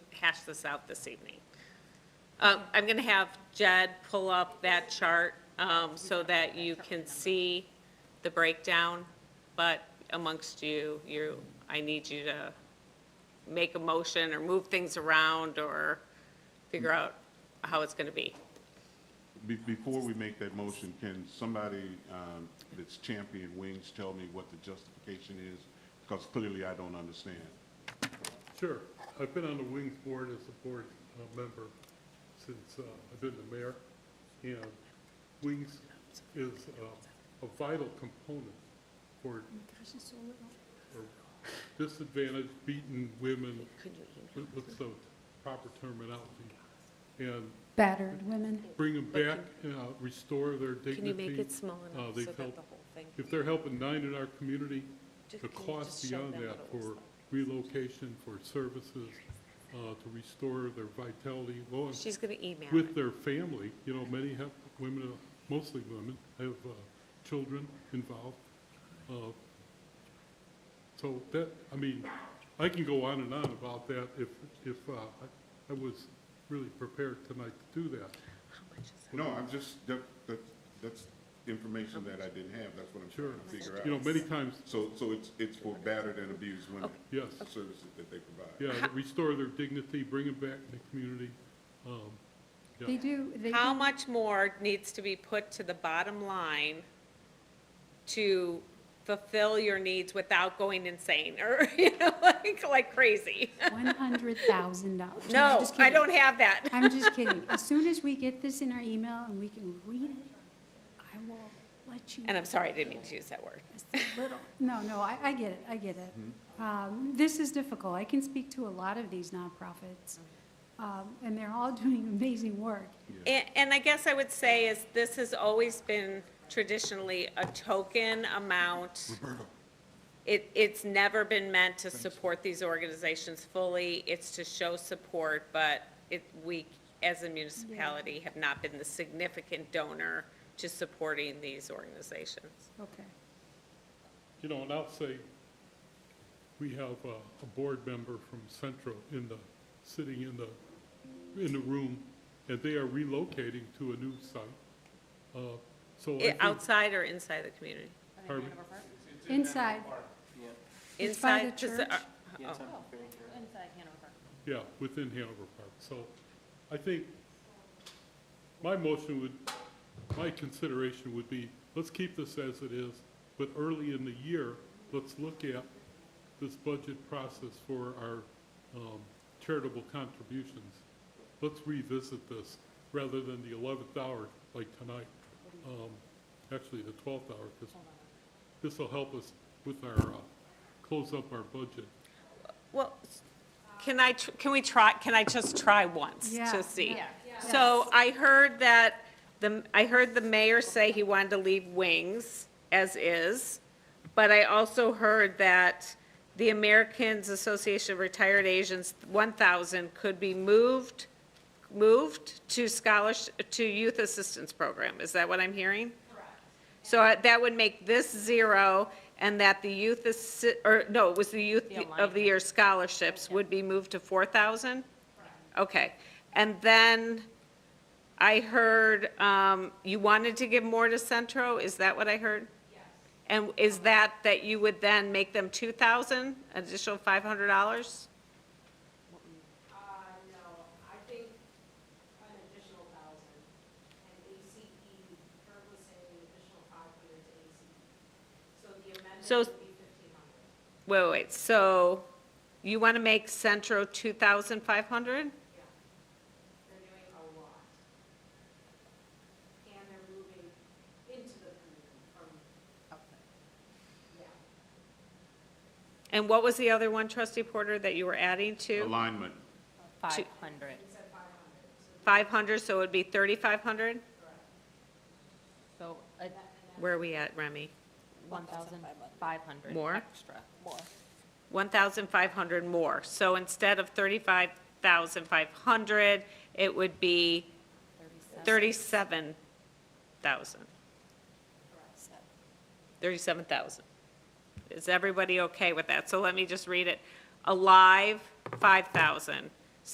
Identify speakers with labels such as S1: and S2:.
S1: hash this out this evening. Um, I'm going to have Jed pull up that chart um, so that you can see the breakdown, but amongst you, you, I need you to make a motion or move things around or figure out how it's going to be.
S2: Be- Before we make that motion, can somebody um, that's champion wings tell me what the justification is? Because clearly I don't understand.
S3: Sure. I've been on the Wings Board as a board uh, member since uh, I've been the mayor. And Wings is uh, a vital component for for disadvantaged, beaten women. What- What's the proper terminology? And
S4: battered women.
S3: bring them back, uh, restore their dignity.
S1: Can you make it small
S3: Uh,
S1: enough
S3: they've
S1: so that
S3: helped-
S1: the whole thing?
S3: If they're helping nine in our community,
S1: Just-
S3: the
S1: can you
S3: cost
S1: just show
S3: beyond
S1: them
S3: that
S1: what it
S3: for
S1: looks
S3: relocation, for services, uh, to restore their vitality, well, and
S1: She's going to email
S3: with
S1: it.
S3: their family, you know, many have women, mostly women, have uh, children involved. Uh, So that, I mean, I can go on and on about that if, if uh, I- I was really prepared tonight to do that.
S2: No, I'm just, that, that, that's information that I didn't have, that's what I'm
S3: Sure.
S2: trying to figure out.
S3: You know, many times,
S2: So, so it's, it's for battered and abused women,
S3: yes.
S2: the services that they provide.
S3: Yeah, that restore their dignity, bring them back to the community. Um, yeah.
S4: They do, they
S1: How
S4: do
S1: much more needs to be put to the bottom line to fulfill your needs without going insane or, you know, like, like crazy?
S4: $100,000. I'm
S1: No,
S4: just
S1: I
S4: kidding.
S1: don't have that.
S4: I'm just kidding. As soon as we get this in our email and we can read it, I will let you.
S1: And I'm sorry, I didn't mean to use that word.
S4: It's a little- No, no, I, I get it, I get it. Um, This is difficult. I can speak to a lot of these nonprofits, um, and they're all doing amazing work.
S1: And, and I guess I would say is this has always been traditionally a token amount.
S3: Mm-hmm.
S1: It, it's never been meant to support these organizations fully. It's to show support, but it, we, as a municipality, have not been the significant donor to supporting these organizations.
S4: Okay.
S3: You know, and I'll say, we have a, a board member from Central in the, sitting in the, in the room, and they are relocating to a new site. Uh, So I
S1: I-
S3: think,
S1: Outside or inside the community?
S3: Harvey,
S4: Inside,
S1: Oh.
S4: It's by the
S1: Inside, just, uh,
S4: church?
S1: oh.
S3: yeah, within Hanover Park. So I think my motion would, my consideration would be, let's keep this as it is, but early in the year, let's look at this budget process for our um, charitable contributions. Let's revisit this rather than the 11th hour like tonight, Um, actually the 12th hour, because this will help us with our, uh, close up our budget.
S1: Well, s- can I, tr- can we try, can I just try once
S4: Yeah,
S1: to see?
S4: yeah,
S1: So I heard that, the, I heard the mayor say he wanted to leave wings as is, but I also heard that the Americans Association of Retired Asians, 1,000, could be moved, moved to scholarship, to youth assistance program. Is that what I'm hearing? So I- that would make this zero, and that the youth, assi- or, no, it was the Youth of the Year scholarships would be moved to 4,000? Okay. And then I heard um, you wanted to give more to Centro, is that what I heard? Yes. And is that, that you would then make them 2,000, additional $500?
S5: Uh, no, I think an additional thousand, and ACE, Kurt was saying an additional five hundred to ACE. So the amendment
S1: So-
S5: would be fifteen
S1: Wait,
S5: hundred.
S1: wait, wait, so you want to make Centro 2,500?
S5: They're doing a lot. And they're moving into the community from. Yeah.
S1: And what was the other one, trustee Porter, that you were adding to?
S2: Alignment,
S6: 500.
S1: 500, so it would be 3,500?
S6: So a
S1: Where are we at, Remy?
S6: 1,500
S1: More?
S6: extra.
S1: 1,500 more. So instead of 35,500, it would be 37,000. 37,000. Is everybody okay with that? So let me just read it. Alive, 5,000.